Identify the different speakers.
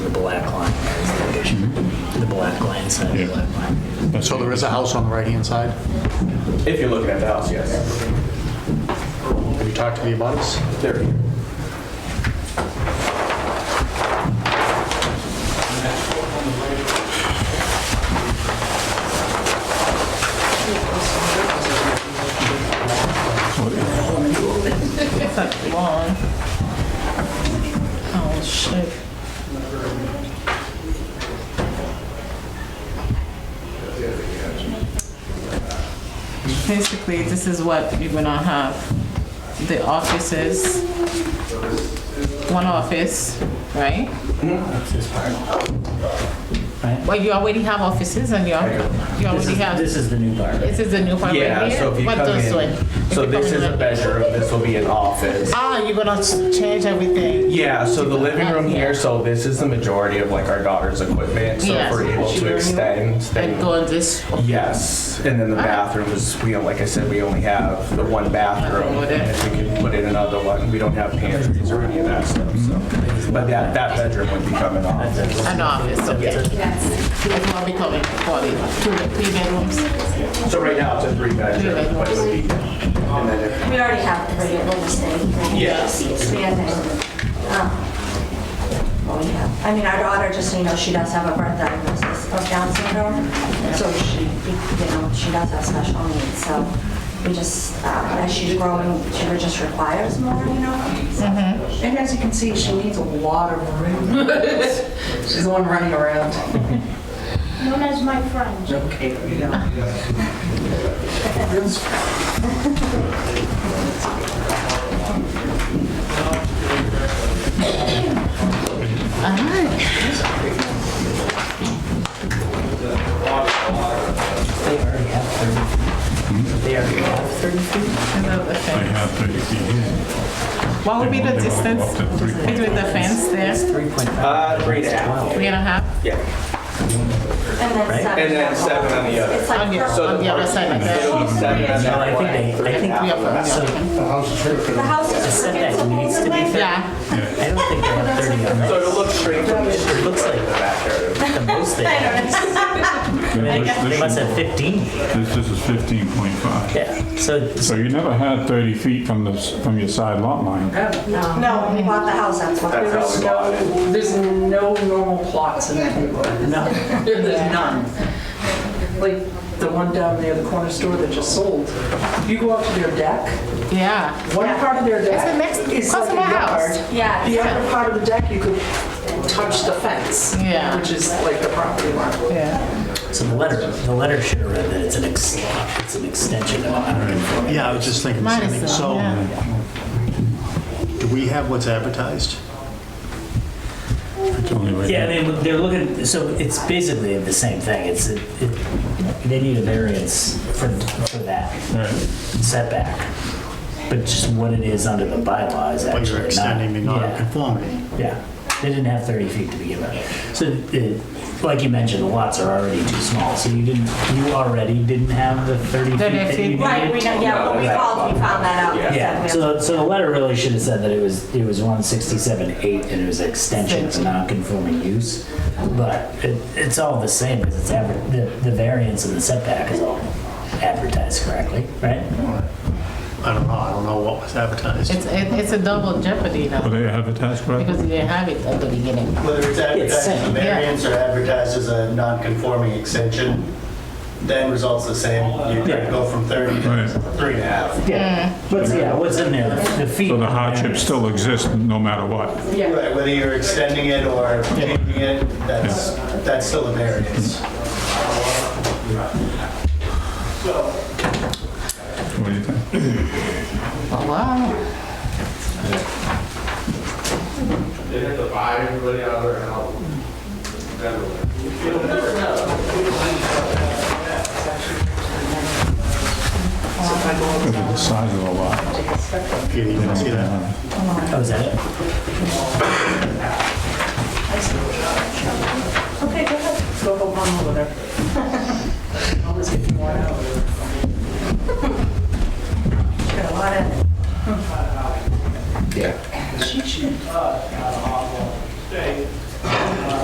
Speaker 1: black line, that is the addition, the black line, side of the black line.
Speaker 2: So there is a house on the right-hand side?
Speaker 3: If you're looking at the house, yes.
Speaker 2: Have you talked to the abutters?
Speaker 3: There.
Speaker 4: That's long. Oh, shit. Basically, this is what you're gonna have. The offices. One office, right? Well, you already have offices and you are- you
Speaker 1: This
Speaker 4: already
Speaker 1: is-
Speaker 4: have,
Speaker 1: This is the new part.
Speaker 4: this is the new part right here?
Speaker 3: Yeah, so if you
Speaker 4: What
Speaker 3: come
Speaker 4: those one?
Speaker 3: in,
Speaker 4: If
Speaker 3: so
Speaker 4: you come
Speaker 3: this
Speaker 4: in
Speaker 3: is a
Speaker 4: like-
Speaker 3: bedroom, this will be an office.
Speaker 4: Ah, you're gonna s- change everything.
Speaker 3: Yeah, so the living room here, so this is the majority of like our daughter's equipment, so if
Speaker 4: Yes.
Speaker 3: we're able to extend,
Speaker 4: And go
Speaker 3: then.
Speaker 4: on this
Speaker 3: Yes, and then the bathrooms, we, don't- like I said, we only have the one bathroom.
Speaker 4: With it.
Speaker 3: And if we could put in another one, we don't have pantries or any of that stuff, so. But that, that bedroom would become an office.
Speaker 4: an office, okay? It's not becoming forty, two, three bedrooms.
Speaker 3: So right now it's a three bedroom, but it'll be, and then if
Speaker 5: We already have the radio what we say.
Speaker 3: Yeah.
Speaker 5: I mean, our daughter, just so you know, she does have a birth diagnosis of Down syndrome. So she, you know, she does have special needs. So we just, uh, as she's growing, she just requires more, you know? So-
Speaker 6: And as you can see, she needs a lot of room. She's the one running around.
Speaker 7: known as my friend.
Speaker 6: Okay, you know.
Speaker 4: Uh-huh.
Speaker 8: I have 30 feet here.
Speaker 4: What would be the
Speaker 8: They won't- they
Speaker 4: distance
Speaker 8: won't go up to three.
Speaker 4: between the fence there,
Speaker 3: Uh, three and a half.
Speaker 4: three and a half?
Speaker 3: Yeah.
Speaker 5: And then seven.
Speaker 3: And then seven on the other.
Speaker 5: It's like
Speaker 4: On the,
Speaker 5: her-
Speaker 4: on the other side like
Speaker 3: It'll be
Speaker 4: that?
Speaker 3: seven
Speaker 1: No,
Speaker 3: on
Speaker 1: I
Speaker 3: that
Speaker 1: think
Speaker 3: one.
Speaker 1: they-
Speaker 3: three
Speaker 1: I
Speaker 3: and a
Speaker 1: think
Speaker 3: half
Speaker 4: Three
Speaker 3: on that.
Speaker 4: of
Speaker 1: So,
Speaker 4: them,
Speaker 2: The house is pretty.
Speaker 5: The house
Speaker 1: I
Speaker 5: is
Speaker 1: said that needs to be,
Speaker 5: principal.
Speaker 4: yeah.
Speaker 1: I
Speaker 4: Yeah,
Speaker 1: don't think they have 30 on
Speaker 3: So
Speaker 1: that.
Speaker 3: it'll look straight from the street.
Speaker 1: Looks like-
Speaker 3: in the backyard.
Speaker 1: The most they have,
Speaker 8: Now, this-
Speaker 1: they must have 15.
Speaker 8: This, this this is 15.5.
Speaker 1: Yeah, so
Speaker 8: So you never had 30 feet from the, s- from your side lot line.
Speaker 5: No, when we bought the house, that's what.
Speaker 3: That's how we bought it.
Speaker 6: There's no normal plots in that neighborhood. No. There's none. Like the one down there, the corner store that just sold. You go up to their deck,
Speaker 4: yeah.
Speaker 6: one part of their
Speaker 4: It's the
Speaker 6: deck
Speaker 4: next,
Speaker 6: is
Speaker 4: across from
Speaker 6: like a
Speaker 4: my house.
Speaker 6: yard.
Speaker 5: Yeah.
Speaker 6: The other part of the deck, you could touch the fence.
Speaker 4: Yeah.
Speaker 6: Which is like the property line.
Speaker 4: Yeah,
Speaker 1: So the letter, the letter should have read that it's an ex, it's an extension of a hundred.
Speaker 2: Yeah, I was just thinking the same
Speaker 4: minus
Speaker 2: thing.
Speaker 4: the,
Speaker 2: So
Speaker 4: yeah.
Speaker 2: do we have what's advertised?
Speaker 8: It's only right
Speaker 1: Yeah,
Speaker 8: here.
Speaker 1: they, they're looking, so it's basically the same thing, it's, it, it- they need a variance for, for that
Speaker 8: Right.
Speaker 1: setback. But just what it is under the bylaw is
Speaker 2: But
Speaker 1: actually
Speaker 2: you're
Speaker 1: not.
Speaker 2: extending the
Speaker 1: Yeah.
Speaker 2: non-conformity.
Speaker 1: Yeah, they didn't have 30 feet to begin with. So, uh, like you mentioned, the lots are already too small, so you didn't, you already didn't have the 30 feet
Speaker 4: 30
Speaker 1: that you
Speaker 4: feet.
Speaker 1: needed?
Speaker 5: Right, we know, yeah, when we called, we found that out.
Speaker 1: Yeah,
Speaker 5: So we have-
Speaker 1: so, so the letter really should have said that it was, it was 167.8 and it was extension to non-conforming use. But it, it's all the same, because it's aver, the, the variance and the setback is all advertised correctly, right?
Speaker 2: I don't know, I don't know what was advertised.
Speaker 4: It's, it- it's a double jeopardy
Speaker 8: Were
Speaker 4: now,
Speaker 8: they advertised correctly?
Speaker 4: because you didn't have it at the beginning.
Speaker 9: Whether it's advertised as a
Speaker 1: same,
Speaker 4: yeah.
Speaker 9: variance or advertised as a non-conforming extension, then results the same. You
Speaker 1: Yeah.
Speaker 9: go from 30 to
Speaker 8: Right.
Speaker 9: three and a half.
Speaker 1: Yeah. What's, yeah, what's in there, the feet.
Speaker 8: So the hardship
Speaker 1: hardship
Speaker 8: still exists no matter what.
Speaker 9: Right, whether you're extending it or changing it, that's, that's still a variance.
Speaker 8: What do you think?
Speaker 4: Oh, Wow.
Speaker 8: Look at the size of the lot.
Speaker 2: Peter, you can see that?
Speaker 1: Oh, is that it?
Speaker 5: Okay, go ahead.
Speaker 6: Go one over there.